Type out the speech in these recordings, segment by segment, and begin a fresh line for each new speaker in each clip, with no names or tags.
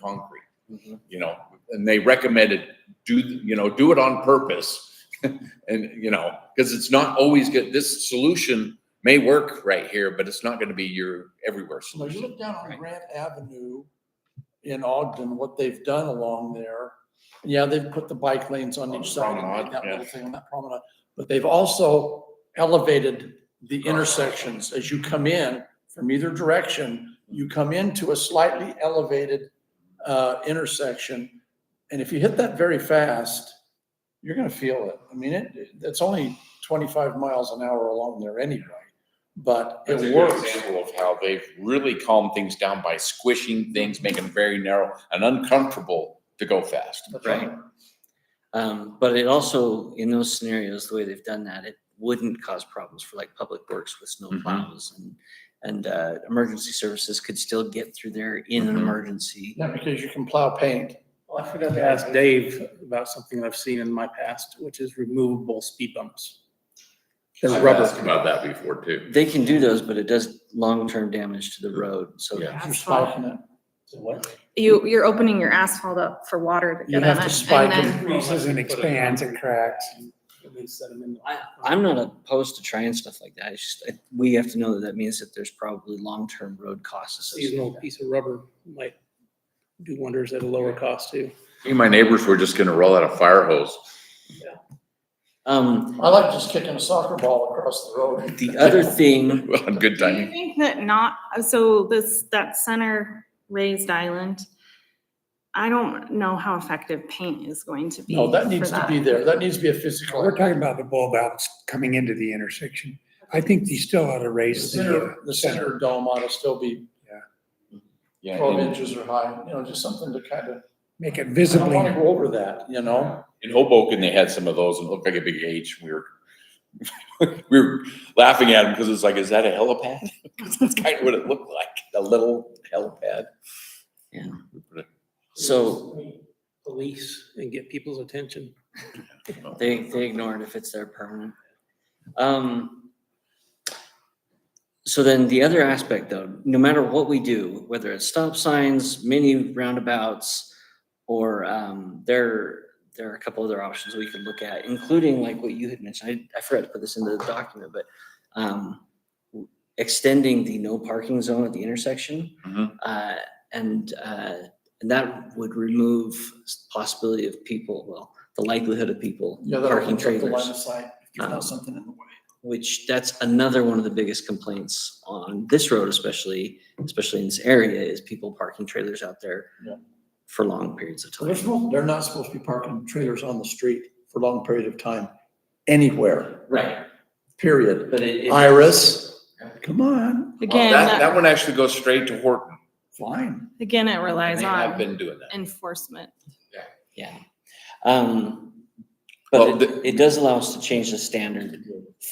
concrete,
Mhm.
you know, and they recommended do, you know, do it on purpose. And, you know, because it's not always good, this solution may work right here, but it's not gonna be your everywhere
So you
solution.
look down on
Right.
Grant Avenue in Ogden, what they've done along there. Yeah, they've put the bike lanes on
On
each
the
side
promenade,
and that
yeah.
little thing on that promenade, but they've also elevated the intersections as you come in from either direction. You come into a slightly elevated uh, intersection, and if you hit that very fast, you're gonna feel it. I mean, it, it's only twenty-five miles an hour along there anyway, but
It's a
it
good
works.
example of how they've really calmed things down by squishing things, making them very narrow and uncomfortable to go fast.
That's
Right. Um, but it also, in those scenarios, the way they've done that, it wouldn't cause problems for like public works with snow
Mhm.
plows and, and, uh, emergency services could still get through there in an
Mhm.
emergency.
Yeah, because you can plow paint.
Well, I forgot to ask Dave about something I've seen in my past, which is removable speed bumps. There's
I've
rubber.
asked about that before too.
They can do those, but it does long-term damage to the road, so.
Yeah.
You're
That's
spiking it.
What?
You, you're opening your asphalt up for water to
You
get
have
in
to
it.
spike
And
it.
then
Increases and
expands and cracks.
I, I'm not opposed to trying stuff like that. It's just, I- we have to know that that means that there's probably long-term road costs associated.
Seasonal piece of rubber might do wonders at a lower cost too.
Me and my neighbors were just gonna roll out a fire hose.
Um,
I like just kicking a soccer ball across the road.
the other thing,
on Good
Do you
timing.
think that not, so this, that center raised island, I don't know how effective paint is going to be.
No, that
for
needs to be there. That needs to be a physical.
We're talking about the bulb outs coming into the intersection. I think you still ought to
The
raise the
center,
uh,
the
center.
center dome ought to still be
Yeah,
twelve
in-
inches or high, you know, just something to kind of,
Make it
I don't want to
visibly,
go over that, you know?
In Hoboken, they had some of those and it looked like a big H. We were, we were laughing at them because it's like, is that a helipad? 'Cause that's kind of what it looked like, a little helipad.
Yeah.
But
so
Police and get people's attention.
they, they ignore it if it's there permanent. Um, so then the other aspect though, no matter what we do, whether it's stop signs, mini roundabouts, or, um, there, there are a couple other options we could look at, including like what you had mentioned. I, I forgot to put this into the document, but, um, extending the no parking zone at the intersection.
Mhm.
Uh, and, uh, and that would remove s- possibility of people, well, the likelihood of people
Yeah, that
parking
opens up the line
trailers
of sight. if There's
Um,
not something in the way.
which that's another one of the biggest complaints on this road, especially, especially in this area, is people parking trailers out there
Yeah.
for long periods of
So They're
time.
supposed, they're not supposed to be parking trailers on the street for a long period of time, anywhere,
Right,
period.
but it.
Iris, come on,
Again,
That, that
that-
one actually goes straight to Horton.
fine.
again, it
and
relies
They have
on
been doing that.
enforcement.
Yeah. Um,
Well,
but it,
the-
it does allow us to change the standard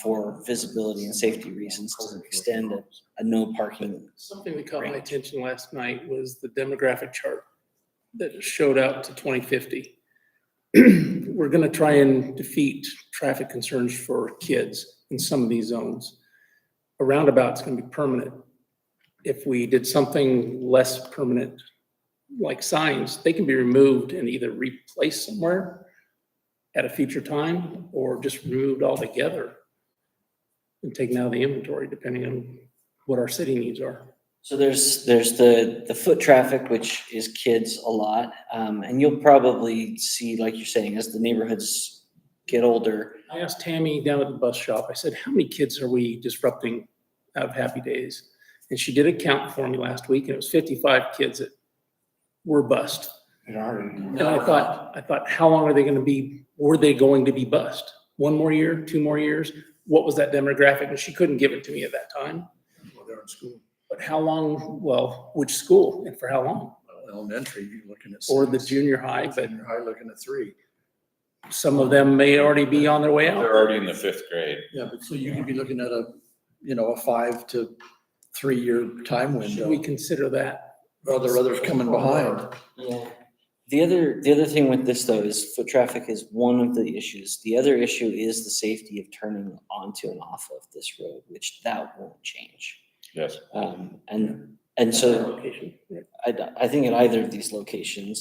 for visibility and safety reasons to extend a, a no parking.
Something that caught my
Right.
attention last night was the demographic chart that showed out to twenty fifty. We're gonna try and defeat traffic concerns for kids in some of these zones. A roundabout's gonna be permanent. If we did something less permanent, like signs, they can be removed and either replaced somewhere at a future time or just removed altogether and taken out of the inventory, depending on what our city needs are.
So there's, there's the, the foot traffic, which is kids a lot. Um, and you'll probably see, like you're saying, as the neighborhoods get older,
I asked Tammy down at the bus shop, I said, how many kids are we disrupting out of Happy Days? And she did a count for me last week and it was fifty-five kids that were bused.
It already-
And I thought, I thought, how long are they gonna be, were they going to be bused? One more year, two more years? What was that demographic? And she couldn't give it to me at that time.
Well, they're in school,
But how long, well, which school and for how long?
elementary, you're looking at.
Or the
six,
junior high, but
Junior high, looking at three.
some of them may already be on their way out.
They're already in the fifth grade.
Yeah, but so you could be looking at a, you know, a five to three-year time
Should we
window,
consider that?
or there are others coming behind.
Yeah. The other, the other thing with this though is foot traffic is one of the issues. The other issue is the safety of turning onto and off of this road, which that won't change.
Yes.
Um, and And so
Location, yeah.
I, I think at either of these locations,